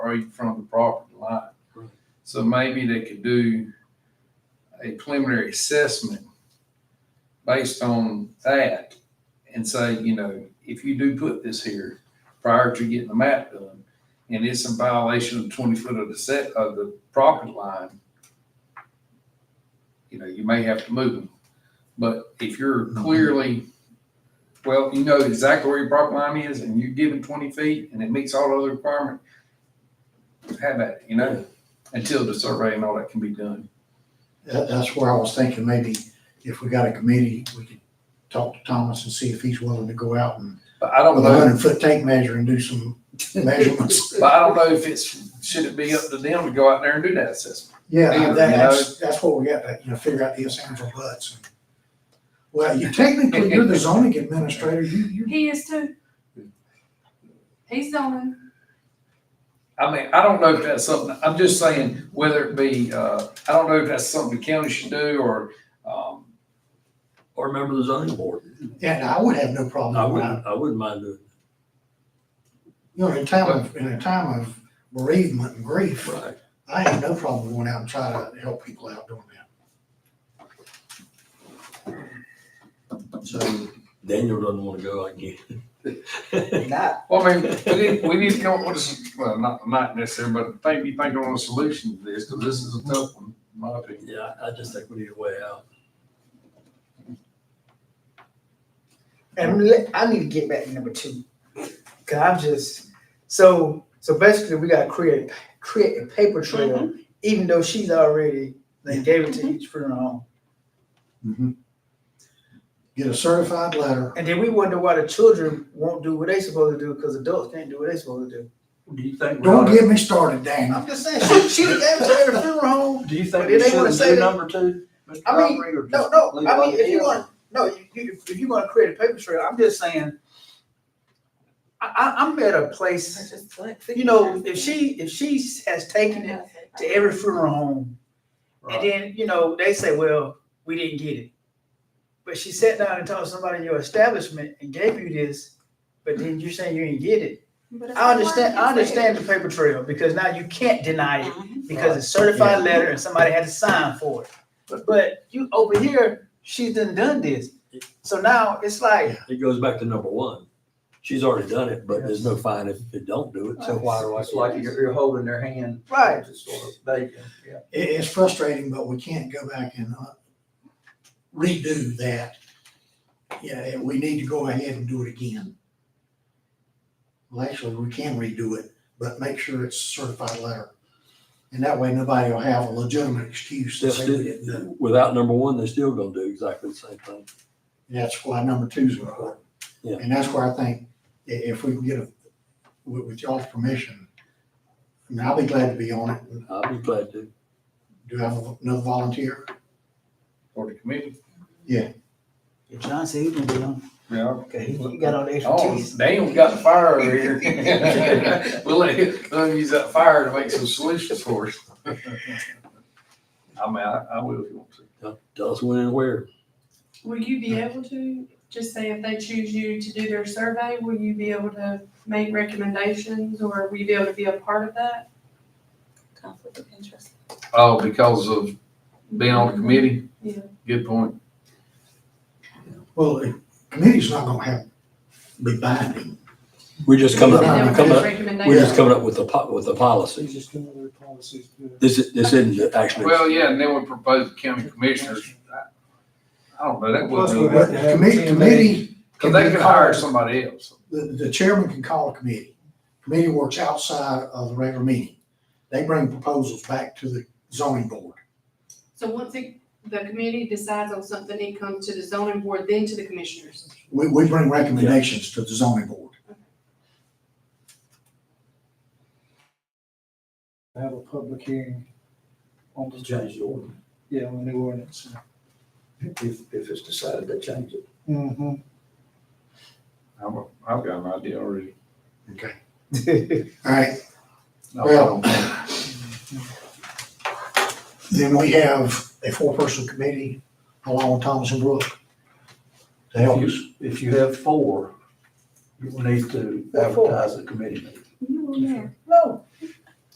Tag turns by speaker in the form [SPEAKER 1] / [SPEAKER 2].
[SPEAKER 1] right in front of the property line.
[SPEAKER 2] Right.
[SPEAKER 1] So maybe they could do a preliminary assessment based on that and say, you know, if you do put this here prior to getting the map done, and it's in violation of twenty foot of the set of the property line, you know, you may have to move them. But if you're clearly, well, you know exactly where your property line is and you're given twenty feet and it meets all other requirements, have at it, you know, until the survey and all that can be done.
[SPEAKER 3] That, that's where I was thinking, maybe if we got a committee, we could talk to Thomas and see if he's willing to go out and
[SPEAKER 1] But I don't
[SPEAKER 3] with a
[SPEAKER 1] know,
[SPEAKER 3] hundred foot tape measure and do some measurements.
[SPEAKER 1] but I don't know if it's, should it be up to them to go out there and do that assessment?
[SPEAKER 3] Yeah,
[SPEAKER 1] Either,
[SPEAKER 3] that-
[SPEAKER 1] you
[SPEAKER 3] that's, that's what we got, to, you know, figure out the ands or buts. Well, you technically, you're the zoning administrator, you, you,
[SPEAKER 4] He is too. He's zoning.
[SPEAKER 1] I mean, I don't know if that's something, I'm just saying whether it be, uh, I don't know if that's something the county should do or, um,
[SPEAKER 2] Or a member of the zoning board.
[SPEAKER 3] and I would have no
[SPEAKER 2] I
[SPEAKER 3] problem with that.
[SPEAKER 2] wouldn't, I wouldn't mind doing
[SPEAKER 3] You know, in a time of, in a time of bereavement and
[SPEAKER 2] it.
[SPEAKER 3] grief,
[SPEAKER 2] Right.
[SPEAKER 3] I have no problem going out and try to help people out doing that.
[SPEAKER 2] So Daniel doesn't want to go, I get it.
[SPEAKER 5] Not,
[SPEAKER 1] Well, I mean, we need, we need to come up with, a s- well, not, not necessarily, but think, be thinking on a solution to this, because this is a tough one, in my opinion.
[SPEAKER 2] Yeah, I I just think we need a way out.
[SPEAKER 5] and le- I need to get back to number two. Cause I'm just, so, so basically we gotta create, create a paper trail, even though she's already, they gave it to each funeral home.
[SPEAKER 3] Get a certified letter,
[SPEAKER 5] And then we wonder why the children won't do what they supposed to do, cause adults can't do what they supposed to do.
[SPEAKER 2] Do you think? we
[SPEAKER 3] don't
[SPEAKER 2] ought to-
[SPEAKER 3] get me started, Dan.
[SPEAKER 5] I'm just saying, she, she gave it to every funeral home.
[SPEAKER 2] Do you
[SPEAKER 5] But
[SPEAKER 2] think we
[SPEAKER 5] they wanna
[SPEAKER 2] should
[SPEAKER 5] say
[SPEAKER 2] do
[SPEAKER 5] that-
[SPEAKER 2] number two? Mr.
[SPEAKER 5] I mean,
[SPEAKER 2] Godfrey, or
[SPEAKER 5] No,
[SPEAKER 2] just
[SPEAKER 5] no,
[SPEAKER 2] leave it
[SPEAKER 5] I
[SPEAKER 2] like
[SPEAKER 5] mean, if
[SPEAKER 2] it
[SPEAKER 5] you
[SPEAKER 2] is?
[SPEAKER 5] want, no, you- you, if you're gonna create a paper trail, I'm just saying, I, I, I'm at a place, you know, if she, if she has taken it to every funeral home. And
[SPEAKER 2] Right.
[SPEAKER 5] then, you know, they say, well, we didn't get it. But she sat down and talked to somebody in your establishment and gave you this, but then you're saying you didn't get it. I understand, I understand the paper trail because now you can't deny it because it's certified letter and somebody had to sign for it. But you over here, she's done done this. So now it's like,
[SPEAKER 2] It goes back to number one. She's already done it, but there's no fine if they don't do it, so why do I?
[SPEAKER 6] It's like you're, you're holding their hand.
[SPEAKER 5] right,
[SPEAKER 6] Just sort of bacon, yeah.
[SPEAKER 3] It, it's frustrating, but we can't go back and uh, redo that. Yeah, we need to go ahead and do it again. Well, actually, we can redo it, but make sure it's certified letter. And that way, nobody will have a legitimate excuse to say we didn't do it.
[SPEAKER 2] Without number one, they're still gonna do exactly the same thing.
[SPEAKER 3] And that's why number two is important.
[SPEAKER 2] Yeah.
[SPEAKER 3] And that's where I think, i- if we can get a, with, with y'all's permission, I mean, I'll be glad to be on it.
[SPEAKER 2] I'd be glad to.
[SPEAKER 3] Do I have another volunteer?
[SPEAKER 1] Or the committee.
[SPEAKER 5] if John said he can do it,
[SPEAKER 1] Yeah.
[SPEAKER 5] okay, he he got all the
[SPEAKER 1] Oh,
[SPEAKER 5] expertise.
[SPEAKER 1] Daniel got the fire over here. We'll let him, let him use that fire to make some solutions for us. I mean, I, I will if you want to.
[SPEAKER 2] Tell- Tell us when and where.
[SPEAKER 4] Will you be able to, just say if they choose you to do their survey, will you be able to make recommendations or will you be able to be a part of that?
[SPEAKER 7] conflict of interest.
[SPEAKER 1] Oh, because of being on the committee?
[SPEAKER 4] Yeah.
[SPEAKER 1] Good point.
[SPEAKER 3] Well, the committee's not gonna have, be binding.
[SPEAKER 2] We're just
[SPEAKER 3] No,
[SPEAKER 2] coming
[SPEAKER 3] no,
[SPEAKER 2] up, we're coming up, we're
[SPEAKER 4] Recommendations.
[SPEAKER 2] just coming up with the po- with the policy.
[SPEAKER 5] just doing their policies.
[SPEAKER 2] This is, this isn't actually.
[SPEAKER 1] Well, yeah, and then we proposed county commissioners. I don't know, that
[SPEAKER 6] Plus,
[SPEAKER 1] wouldn't
[SPEAKER 6] we
[SPEAKER 1] really,
[SPEAKER 3] But
[SPEAKER 6] would-
[SPEAKER 3] the committee, committee.
[SPEAKER 1] because they
[SPEAKER 3] can be
[SPEAKER 1] could hire
[SPEAKER 3] called-
[SPEAKER 1] somebody else.
[SPEAKER 3] The, the chairman can call a committee. Committee works outside of the regular meeting. They bring proposals back to the zoning board.
[SPEAKER 4] So once it- the committee decides on something, it comes to the zoning board, then to the commissioners.
[SPEAKER 3] We, we bring recommendations to the zoning board.
[SPEAKER 8] have a public hearing on the.
[SPEAKER 6] Change the order,
[SPEAKER 8] Yeah, on the new ordinance.
[SPEAKER 6] if, if it's decided to change it.
[SPEAKER 8] Mm-hmm.
[SPEAKER 1] I'm a- I've got an idea already.
[SPEAKER 3] Okay. All right, Well- then we have a four-person committee along with Thomas and Brooke to help us.
[SPEAKER 6] If you have four, you will need to
[SPEAKER 5] What four?
[SPEAKER 6] advertise the committee.
[SPEAKER 7] You were there.
[SPEAKER 5] No,